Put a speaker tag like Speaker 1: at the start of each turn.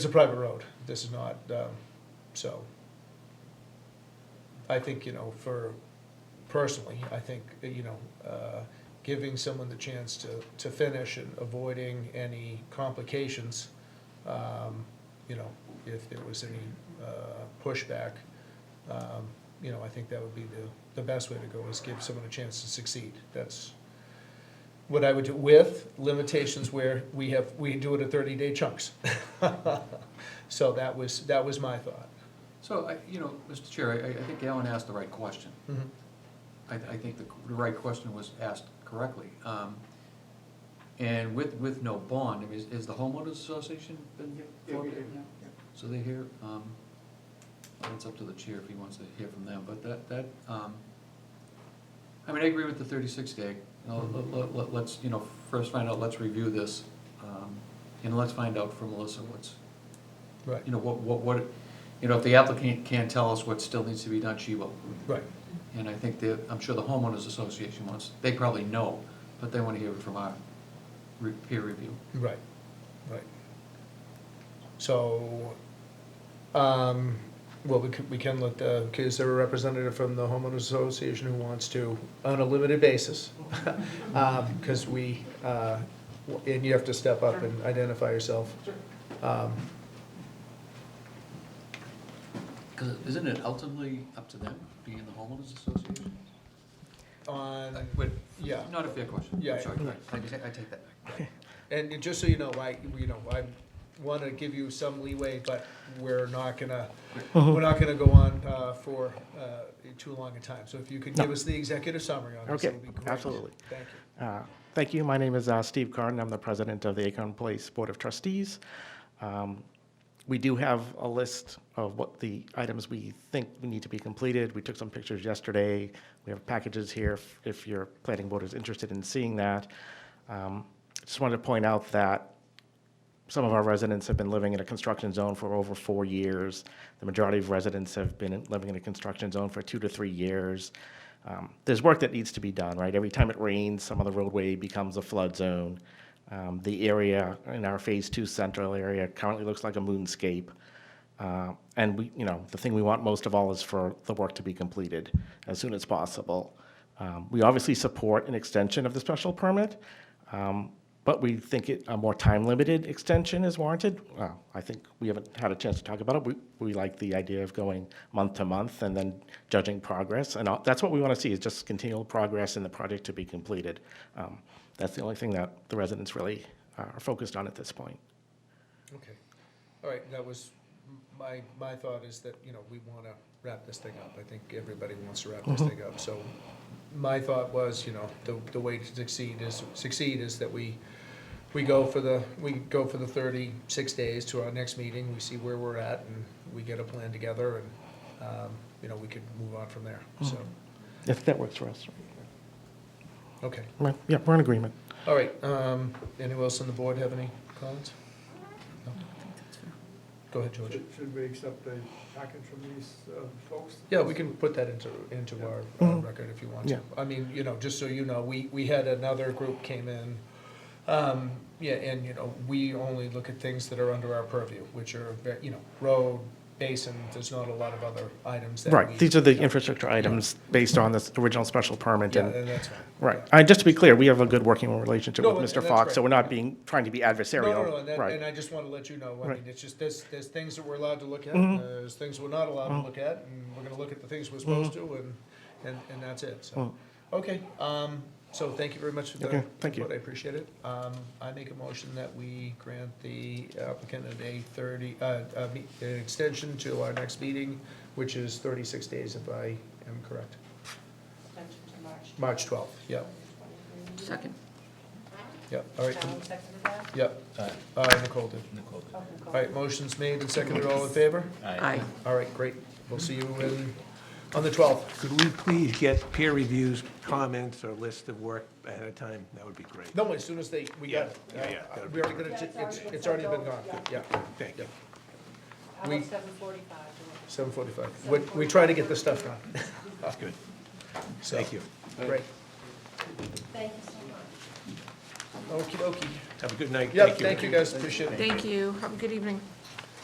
Speaker 1: It's a private road, this is not, um, so. I think, you know, for, personally, I think, you know, uh, giving someone the chance to, to finish and avoiding any complications, um, you know, if there was any uh, pushback, um, you know, I think that would be the, the best way to go, is give someone a chance to succeed. That's what I would do with limitations where we have, we do it at thirty-day chunks. So that was, that was my thought.
Speaker 2: So, I, you know, Mr. Chair, I, I think Alan asked the right question.
Speaker 1: Mhm.
Speaker 2: I, I think the, the right question was asked correctly. Um, And with, with no bond, I mean, is, is the homeowners association been formed? So they hear, um, well, it's up to the chair if he wants to hear from them, but that, that, um, I mean, I agree with the thirty-six day. You know, let- let, let, let's, you know, first find out, let's review this, um, and let's find out from Melissa what's,
Speaker 1: Right,
Speaker 2: you know, what, what, what, you know, if the applicant can't tell us what still needs to be done, she will.
Speaker 1: right,
Speaker 2: And I think that, I'm sure the homeowners association wants, they probably know, but they wanna hear it from our re- peer review.
Speaker 1: right, right. So, um, well, we can, we can look, uh, is there a representative from the homeowners association who wants to, on a limited basis? Um, cause we, uh, w- and you have to step up and identify yourself. Um,
Speaker 2: Cause isn't it ultimately up to them, being the homeowners association?
Speaker 1: On,
Speaker 2: Wait,
Speaker 1: yeah.
Speaker 2: Not a fair question,
Speaker 1: Yeah,
Speaker 2: I'm sorry,
Speaker 1: yeah.
Speaker 2: I, I ta- I take that back.
Speaker 1: And just so you know, I, you know, I want to give you some leeway, but we're not gonna,
Speaker 3: Uh-huh.
Speaker 1: we're not gonna go on uh, for uh, too long a time. So if you could give us the executive summary on this,
Speaker 3: Okay,
Speaker 1: it would be great.
Speaker 3: absolutely.
Speaker 1: Thank you.
Speaker 3: Uh, Thank you. My name is uh, Steve Carden. I'm the president of the Acorn Place Board of Trustees. Um, We do have a list of what the items we think need to be completed. We took some pictures yesterday. We have packages here if- if your planning board is interested in seeing that. Um, Just wanted to point out that some of our residents have been living in a construction zone for over four years. The majority of residents have been in- living in a construction zone for two to three years. Um, There's work that needs to be done, right? Every time it rains, some of the roadway becomes a flood zone. Um, The area in our Phase Two central area currently looks like a moonscape. Uh, And we, you know, the thing we want most of all is for the work to be completed as soon as possible. Um, We obviously support an extension of the special permit, um, but we think it, a more time-limited extension is warranted. Well, I think we haven't had a chance to talk about it. We, we like the idea of going month to month and then judging progress. And all- that's what we want to see, is just continual progress in the project to be completed. Um, That's the only thing that the residents really are focused on at this point.
Speaker 1: Okay. All right, that was, my, my thought is that, you know, we want to wrap this thing up. I think everybody wants to wrap this thing up. So my thought was, you know, the, the way to succeed is, succeed is that we, we go for the, we go for the thirty-six days to our next meeting. We see where we're at and we get a plan together and, um, you know, we could move on from there. So,
Speaker 3: If that works for us.
Speaker 1: okay.
Speaker 3: Right, Yeah, we're in agreement.
Speaker 1: All right, um, anyone else on the board have any comments? No? Go ahead, George.
Speaker 4: Should should we accept a package from these uh, folks?
Speaker 1: Yeah, we can put that into, into our, our
Speaker 3: Mhm.
Speaker 1: record if you want to.
Speaker 3: Yeah.
Speaker 1: I mean, you know, just so you know, we, we had another group came in. Um, yeah, and, you know, we only look at things that are under our purview, which are, ve- you know, road, basin, there's not a lot of other items that we.
Speaker 3: Right, these are the infrastructure items based on this original special permit
Speaker 1: Yeah,
Speaker 3: and
Speaker 1: and that's fine.
Speaker 3: Right. Uh, Just to be clear, we have a good working relationship
Speaker 1: No,
Speaker 3: with
Speaker 1: and-
Speaker 3: Mr.
Speaker 1: and that's
Speaker 3: Fox, so
Speaker 1: right.
Speaker 3: we're not being, trying to be adversarial.
Speaker 1: No, no, no, and that-
Speaker 3: Right.
Speaker 1: and I just want to let you know, I
Speaker 3: Right.
Speaker 1: mean, it's just, there's, there's things that we're allowed to look at,
Speaker 3: Mhm.
Speaker 1: there's things we're not allowed
Speaker 3: Mm-hmm.
Speaker 1: to look at, and we're gonna look at the things we're supposed to, and, and, and that's it, so.
Speaker 3: Mm.
Speaker 1: Okay, um, so thank you very much for the
Speaker 3: Okay, thank you.
Speaker 1: input, I appreciate it. Um, I make a motion that we grant the applicant a day thirty, uh, uh, me- an extension to our next meeting, which is thirty-six days, if I am correct.
Speaker 5: Extension to March.
Speaker 1: March twelfth, yeah,
Speaker 6: Second.
Speaker 1: yeah, all right,
Speaker 5: Alan seconded that?
Speaker 1: yeah, uh, Nicole did.
Speaker 5: Okay, cool.
Speaker 1: All right, motion's made and seconded, all in favor?
Speaker 6: Aye.
Speaker 1: All right, great. We'll see you in, on the 12th.
Speaker 7: Could we please get peer reviews, comments, or list of work ahead of time? That would be great.
Speaker 1: No, as soon as they, we got it.
Speaker 7: Yeah, yeah, yeah, that'll
Speaker 1: We already got it,
Speaker 5: Yeah, it's
Speaker 1: it's,
Speaker 5: already-
Speaker 1: it's already been gone,
Speaker 5: yeah.
Speaker 1: yeah,
Speaker 7: Thank you.
Speaker 5: How
Speaker 1: we-
Speaker 5: about seven forty-five?
Speaker 1: 7:45. We, we try to get this stuff done.
Speaker 7: That's good.
Speaker 1: So,
Speaker 7: Thank you.
Speaker 1: Great.
Speaker 5: Thank you so much.
Speaker 1: Okey dokey.
Speaker 7: Have a good night.
Speaker 1: Yeah, thank you guys, appreciate it.
Speaker 6: Thank you. Have a good evening.